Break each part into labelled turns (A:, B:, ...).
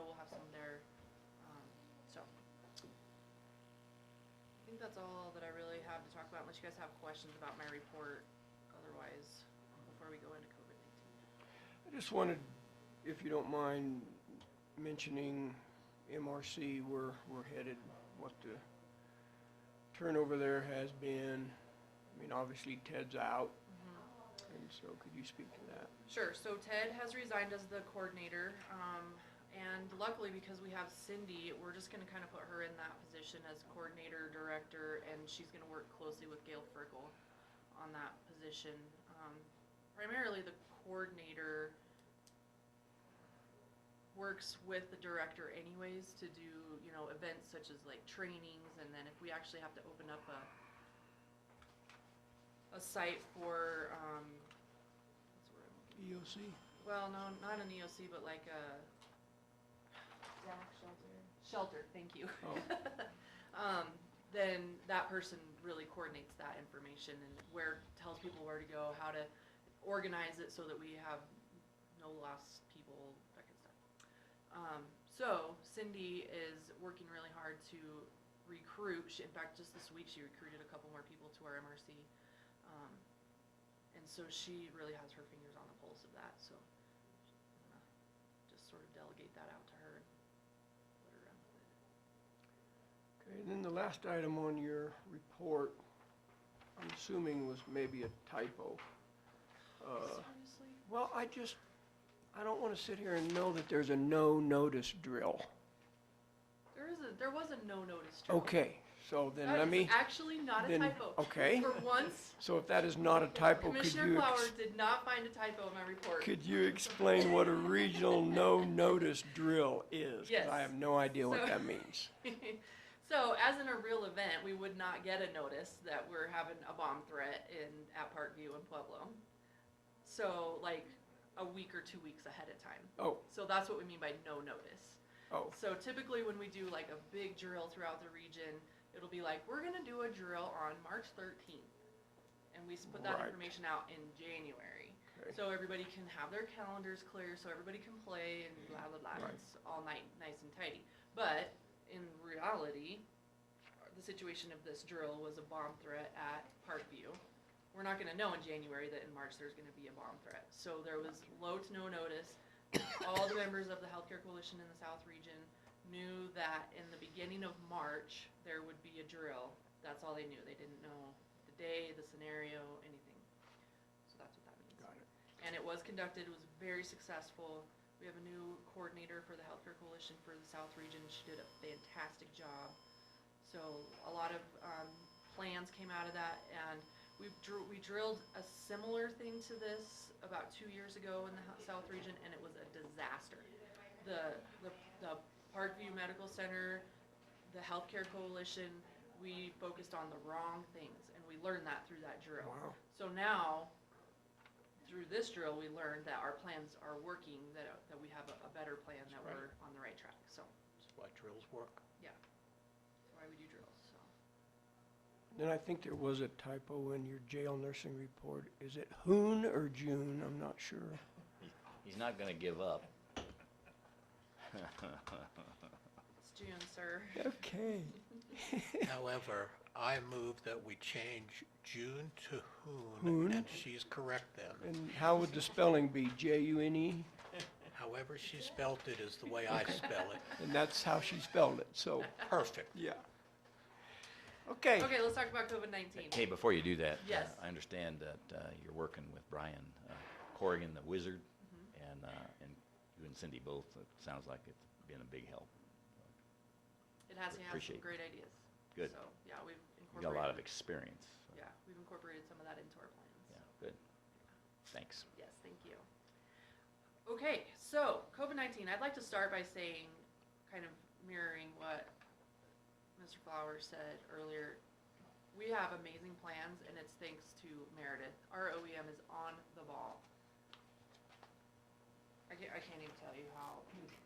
A: um, that's all that I really have to talk about unless you guys have questions about my report otherwise, before we go into COVID nineteen.
B: I just wanted, if you don't mind, mentioning MRC, where we're headed, what the turnover there has been. I mean, obviously Ted's out, and so could you speak to that?
A: Sure, so Ted has resigned as the coordinator, um, and luckily because we have Cindy, we're just gonna kinda put her in that position as coordinator, director, and she's gonna work closely with Gail Frickel on that position. Um, primarily the coordinator works with the director anyways to do, you know, events such as like trainings, and then if we actually have to open up a a site for, um, what's the word I'm looking
B: EOC?
A: well, no, not an EOC, but like uh, a. Zach shelter? Shelter, thank you.
B: Oh.
A: Um, then that person really coordinates that information and where, tells people where to go, how to organize it so that we have no lost people, that kind of stuff. Um, so Cindy is working really hard to recruit, she, in fact, just this week, she recruited a couple more people to our MRC. Um, and so she really has her fingers on the pulse of that, so I'm gonna just sort of delegate that out to her and let her run with it.
B: Okay, and then the last item on your report, I'm assuming was maybe a typo. Uh,
A: Seriously?
B: Well, I just, I don't want to sit here and know that there's a no-notice drill.
A: There is a, there was a no notice to it.
B: Okay, so then
A: That
B: let
A: is
B: me,
A: actually not a
B: then-
A: typo.
B: okay.
A: For once,
B: so if that is not a typo, could
A: Commissioner
B: you,
A: Flowers
B: ex-
A: did not find a typo in my report.
B: could you explain what a regional no-notice drill is? 'Cause
A: Yes.
B: I have no idea
A: So-
B: what that means.
A: So as in a real event, we would not get a notice that we're having a bomb threat in, at Parkview and Pueblo. So like a week or two weeks ahead of time.
B: Oh,
A: So that's what we mean by no notice.
B: oh,
A: So typically when we do like a big drill throughout the region, it'll be like, we're gonna do a drill on March thirteenth. And we s- put that
B: Right.
A: information out in January.
B: Okay.
A: So everybody can have their calendars clear, so everybody can play and blah, blah, blah,
B: Right.
A: it's all night, nice and tidy. But in reality, the situation of this drill was a bomb threat at Parkview. We're not gonna know in January that in March there's gonna be a bomb threat. So there was low to no notice. All the members of the healthcare coalition in the South region knew that in the beginning of March, there would be a drill. That's all they knew. They didn't know the day, the scenario, anything. So that's what that means
B: got it.
A: and it was conducted, it was very successful. We have a new coordinator for the Healthcare Coalition for the South Region, she did a fantastic job. So a lot of, um, plans came out of that, and we drew, we drilled a similar thing to this about two years ago in the Hou- South Region, and it was a disaster. The, the, the Parkview Medical Center, the Healthcare Coalition, we focused on the wrong things, and we learned that through that drill.
B: Wow.
A: So now, through this drill, we learned that our plans are working, that, that we have a, a better plan, that we're on the right track, so,
C: That's why drills work.
A: yeah. That's why we do drills, so.
B: Then I think there was a typo in your jail nursing report. Is it Hoon or June? I'm not sure.
D: He's not gonna give up.
A: It's June, sir.
B: Okay.
C: However, I move that we change June to
B: Hoon.
C: Hoon, and she's correct then.
B: And how would the spelling be? J-U-N-E?
C: However she spelt it is the way I spell it.
B: And that's how she spelled it, so,
C: Perfect.
B: yeah. Okay.
A: Okay, let's talk about COVID nineteen.
D: Hey, before you do that, uh,
A: Yes.
D: I understand that uh, you're working with Brian uh, Corrigan, the wizard, and, uh, and you and Cindy both, it sounds like it's been a big help.
A: It has, me have some
D: Appreciate it.
A: great ideas.
D: Good.
A: So, yeah, we've
D: You
A: incorporated.
D: got a lot of experience. so,
A: Yeah, we've incorporated some of that into our plans.
D: Yeah, good. Thanks.
A: Yes, thank you. Okay, so COVID-19, I'd like to start by saying, kind of mirroring what Mr. Flowers said earlier. We have amazing plans and it's thanks to Meredith. Our OEM is on the ball. I can't, I can't even tell you how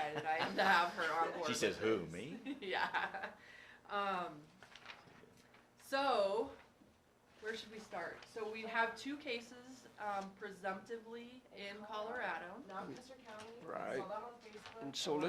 A: excited I am to have her on board.
D: She says,
A: with
D: "Who,
A: this."
D: me?"
A: Yeah. Um, so, where should we start? So we have two cases, um, presumptively in Colorado.
E: Not Custer County. I
B: Right.
E: saw that on Facebook.
B: And so
E: I
B: let's